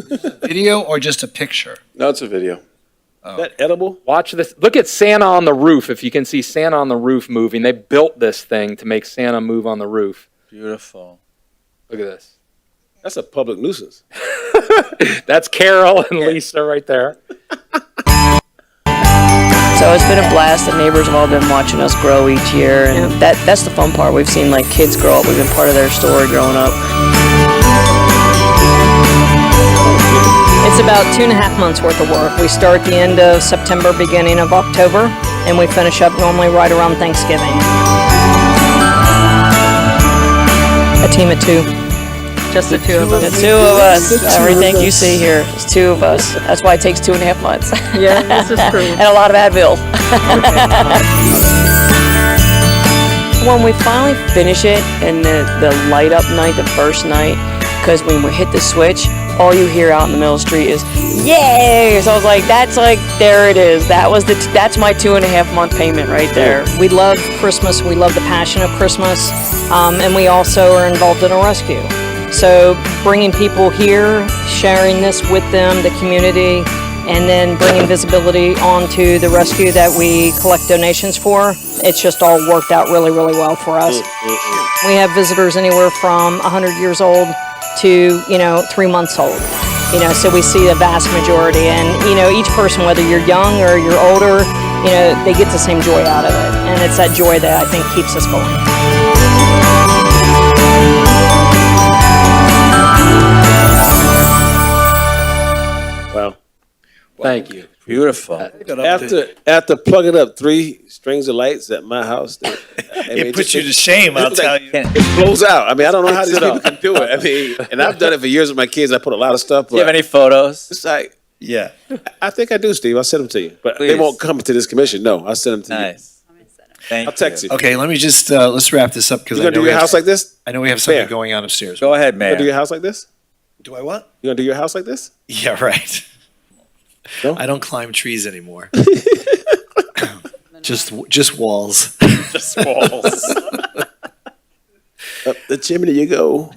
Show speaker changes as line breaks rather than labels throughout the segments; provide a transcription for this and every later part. Video or just a picture?
No, it's a video.
Oh.
that edible?
Watch this. Look at Santa on the roof. If you can see Santa on the roof moving, they built this thing to make Santa move on the roof.
Beautiful.
Look at this.
That's a public nuisance.
That's Carol and Lisa right there.
So it's been a blast. The neighbors have all been watching us grow each year, and that that's the fun part. We've seen like kids grow up. We've been part of their story growing up. It's about two and a half months worth of work. We start the end of September, beginning of October, and we finish up normally right around Thanksgiving. A team of two. Just the two of us. The two of us. Everything you see here is two of us. That's why it takes two and a half months. Yeah, this is true. and a lot of Advil. when we finally finish it and the, the light up night, the first night, because when we hit the switch, all you hear out in the middle of the street is yay! So I was like, that's like there it is. That was the t- that's my two and a half month payment right there. We love Christmas. We love the passion of Christmas, um, and we also are involved in a rescue. So bringing people here, sharing this with them, the community, and then bringing visibility onto the rescue that we collect donations for. It's just all worked out really, really well for us. We have visitors anywhere from 100 years old to, you know, three months old. You know, so we see a vast majority. And, you know, each person, whether you're young or you're older, you know, they get the same joy out of it. And it's that joy that I think keeps us going.
Wow.
Thank you.
Beautiful.
After after plugging up three strings of lights at my house, they- I mean,
It puts
just-
you to shame, I'll tell you.
It blows out. I mean, I don't know how these people can do it. I mean, and I've done it for years with my kids. I put a lot of stuff.
Do you have
but
any photos?
It's like
Yeah.
I think I do, Steve. I'll send them to you, but
Please.
they won't come to this commission. No, I'll send them to you.
Nice. Thank
I'll text you.
Okay, let me just, uh, let's wrap this up because
You
I
gonna do
know we
your house
have,
like this?
I know we have something
Fair.
going on upstairs.
Go ahead,
You gonna do your
man.
house like this?
Do I what?
You gonna do your house like this?
Yeah, right.
No?
I don't climb trees anymore. Just, just walls.
Up the chimney you go.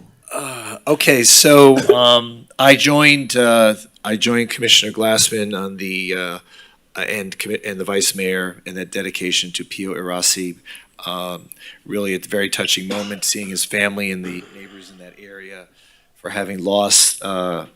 Okay, so um, I joined uh, I joined Commissioner Glassman on the uh, and commi- and the Vice Mayor and that dedication to Pio Irasi. Um, really, at the very touching moment, seeing his family and the neighbors in that area for having lost uh,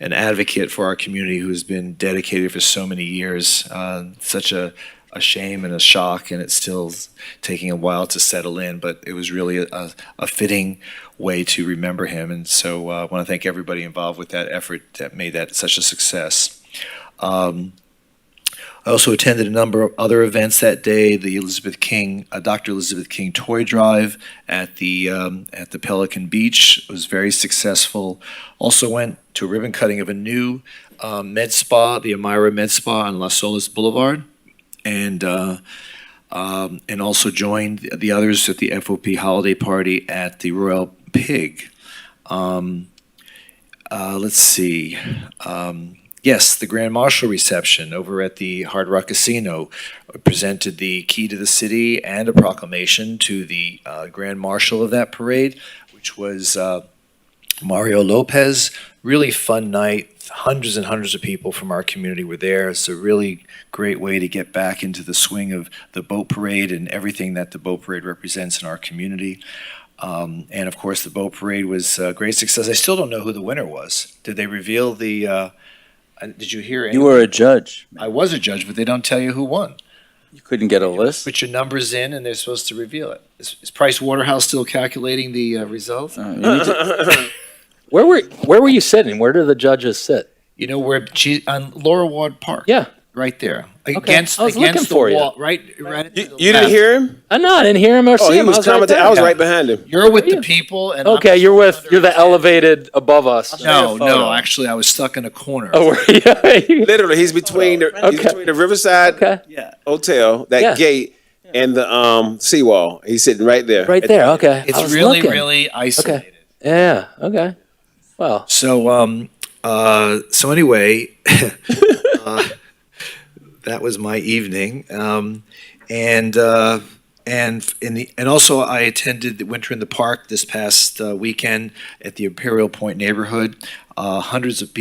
an advocate for our community who's been dedicated for so many years. Uh, such a a shame and a shock, and it's still taking a while to settle in. But it was really a, a fitting way to remember him, and so uh, I want to thank everybody involved with that effort that made that such a success. Um, I also attended a number of other events that day. The Elizabeth King, uh, Dr. Elizabeth King toy drive at the um, at the Pelican Beach was very successful. Also went to a ribbon cutting of a new um, med spa, the Amira Med Spa on Las Olas Boulevard, and uh, um, and also joined the others at the FOP holiday party at the Royal Pig. Um, uh, let's see. Um, yes, the Grand Marshal reception over at the Hard Rock Casino presented the key to the city and a proclamation to the uh, Grand Marshal of that parade, which was uh, Mario Lopez. Really fun night. Hundreds and hundreds of people from our community were there. It's a really great way to get back into the swing of the boat parade and everything that the boat parade represents in our community. Um, and of course, the boat parade was a great success. I still don't know who the winner was. Did they reveal the? Uh, uh, did you hear?
You were a judge.
I was a judge, but they don't tell you who won.
You couldn't get a list?
Put your numbers in, and they're supposed to reveal it. Is, is Price Waterhouse still calculating the uh, results?
Uh, you need to-
Where were where were you sitting? Where do the judges sit?
You know where she on Laura Ward Park.
Yeah.
right there against
I was
against
looking
the
for you.
wall. Right, right. at
You,
the
you
left.
didn't hear him?
I know Uh, I didn't hear him or
Oh,
see
he
him.
was
I
commenting.
there.
I was right behind him.
You're with the
Yeah.
people, and I'm
Okay, you're with
under-
you're the elevated above us.
No,
Show your photo.
no. Actually, I was stuck in a corner.
Oh, were you?
Literally, he's between the, he's
Okay.
between the Riverside
okay,
Hotel, that
Yeah.
gate, and the um, seawall. He's sitting right there.
right there. Okay, I
it's
was
really,
looking.
really isolated.
Okay. Yeah. Okay. Wow.
So, um, uh, so anyway, uh, that was my evening, um, and uh, And in the, and also I attended the Winter in the Park this past uh, weekend at the Imperial Point neighborhood. Uh, Hundreds of people